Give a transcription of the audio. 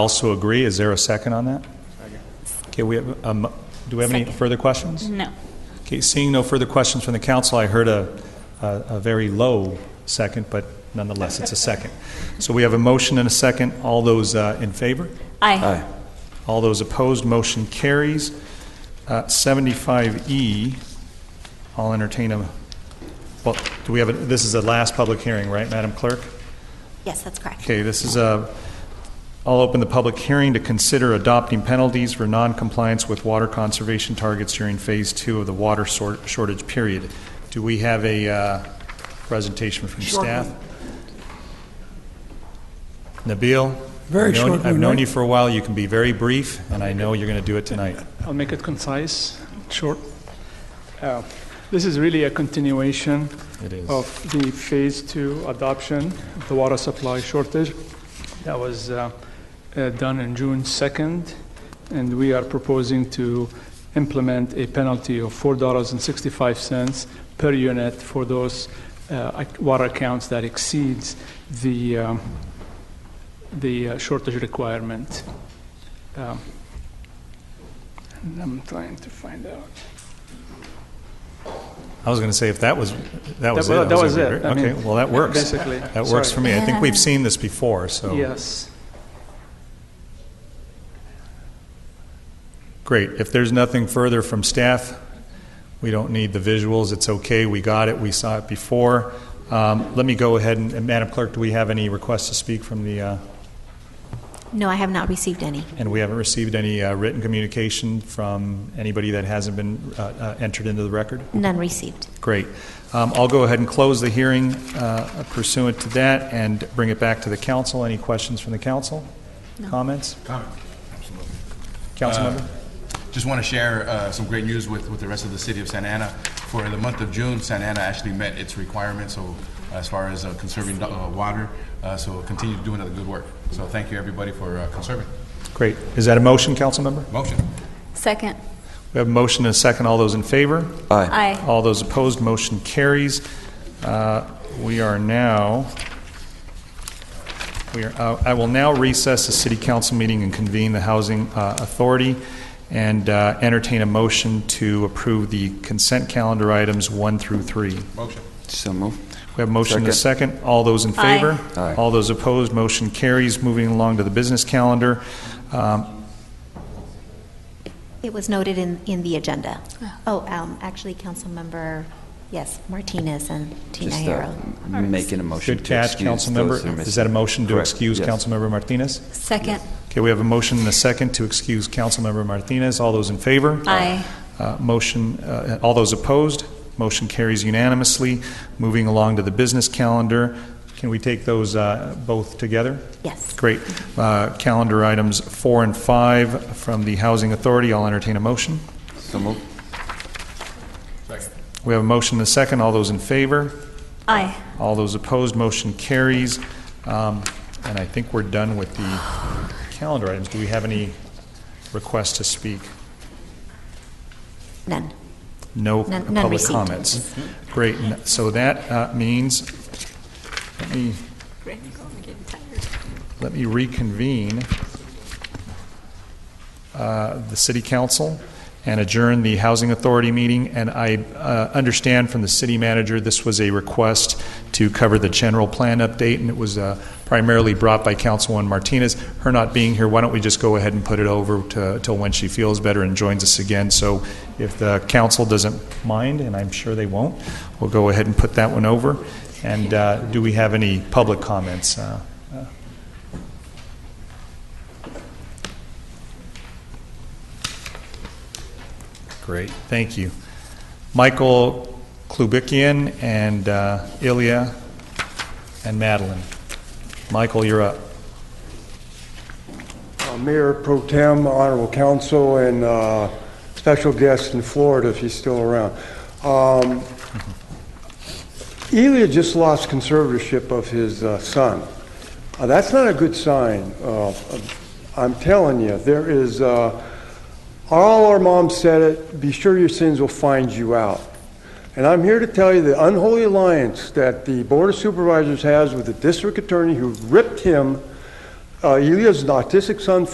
Also agree, is there a second on that? Okay, we have, um, do we have any Second. further questions? No. Okay, seeing no further questions from the council, I heard a, a a very low second, but nonetheless, it's a second. So we have a motion and a second. All those uh, in favor? Aye. All those opposed, motion carries. Uh, 75E, I'll entertain a, well, do we have, a- this is the last public hearing, right, Madam Clerk? Yes, that's correct. Okay, this is a, I'll open the public hearing to consider adopting penalties for noncompliance with water conservation targets during Phase Two of the water sor- shortage period. Do we have a uh, presentation from Short staff? Nabil? Very I've known- short I've one, known right? you for a while, you can be very brief, and I know you're going to do it tonight. I'll make it concise, short. Uh, This is really a continuation It is. of the Phase 2 adoption of the water supply shortage that was uh, uh, done on June 2nd, and we are proposing to implement a penalty of $4.65 per unit for those uh, ac- water accounts that exceeds the, um, the uh, shortage requirement. Um, and I'm trying to find out. I was going to say, if that was, that was it. well, I that was over- it. I Okay, mean, well, that works. Basically. That works for Sorry. me. I think we've seen this before, so. Yes. Great. If there's nothing further from staff, we don't need the visuals. It's okay. We got it. We saw it before. Um, Let me go ahead and, and Madam Clerk, do we have any requests to speak from the, uh, No, I have not received any. and we haven't received any uh, written communication from anybody that hasn't been uh, uh, entered into the record? None received. Great. Um, I'll go ahead and close the hearing uh, pursuant to that and bring it back to the council. Any questions from the council? Comments? Councilmember? Just want to share uh, some great news with, with the rest of the city of Santa Ana. For the month of June, Santa Ana actually met its requirements, so as far as uh, conserving uh, water, uh, so continue doing the good work. So thank you, everybody, for uh, conserving. Great. Is that a motion, Councilmember? Motion. Second. We have a motion and a second. All those in favor? Aye. All those opposed, motion carries. Uh, We are now, we are, uh, I will now recess the city council meeting and convene the Housing uh, Authority and uh, entertain a motion to approve the consent calendar items one through three. Motion. So move. We have a motion and a second. All those in Aye. favor? Aye. All those opposed, motion carries. Moving along to the business calendar. Um, It was noted in, in the agenda. Oh, um, actually, Councilmember, yes, Martinez and Tina Just uh, Harrow. making a motion Good to catch, excuse those Councilmember. who are missing. Is that a motion to Correct, excuse yes. Councilmember Martinez? Second. Okay, we have a motion and a second to excuse Councilmember Martinez. All those in favor? Aye. Uh, Motion, uh, all those opposed? Motion carries unanimously. Moving along to the business calendar. Can we take those uh, both together? Yes. Great. Uh, Calendar items four and five from the Housing Authority. I'll entertain a motion. So move. Second. We have a motion and a second. All those in favor? Aye. All those opposed, motion carries. Um, And I think we're done with the calendar items. Do we have any requests to speak? None. No None- none public received. Mm-hmm. comments. Great, N- so that uh, means, let me, let me reconvene uh, the city council and adjourn the housing authority meeting. And I uh, understand from the city manager, this was a request to cover the general plan update, and it was uh, primarily brought by Councilwoman Martinez. Her not being here, why don't we just go ahead and put it over to, till when she feels better and joins us again? So if the council doesn't mind, and I'm sure they won't, we'll go ahead and put that one over. And uh, do we have any public comments? Uh, Great, thank you. Michael Klubikian and uh, Ilya and Madeline. Michael, you're up. Uh, Mayor Pro Tem, Honorable Council, and uh, special guest in Florida, if he's still around. Um, Elia just lost conservatorship of his uh, son. Uh, That's not a good sign. Uh, I'm telling you, there is, uh, all our moms said it, be sure your sins will find you out. And I'm here to tell you the unholy alliance that the Board of Supervisors has with the district attorney who ripped him uh, he lives an autistic son,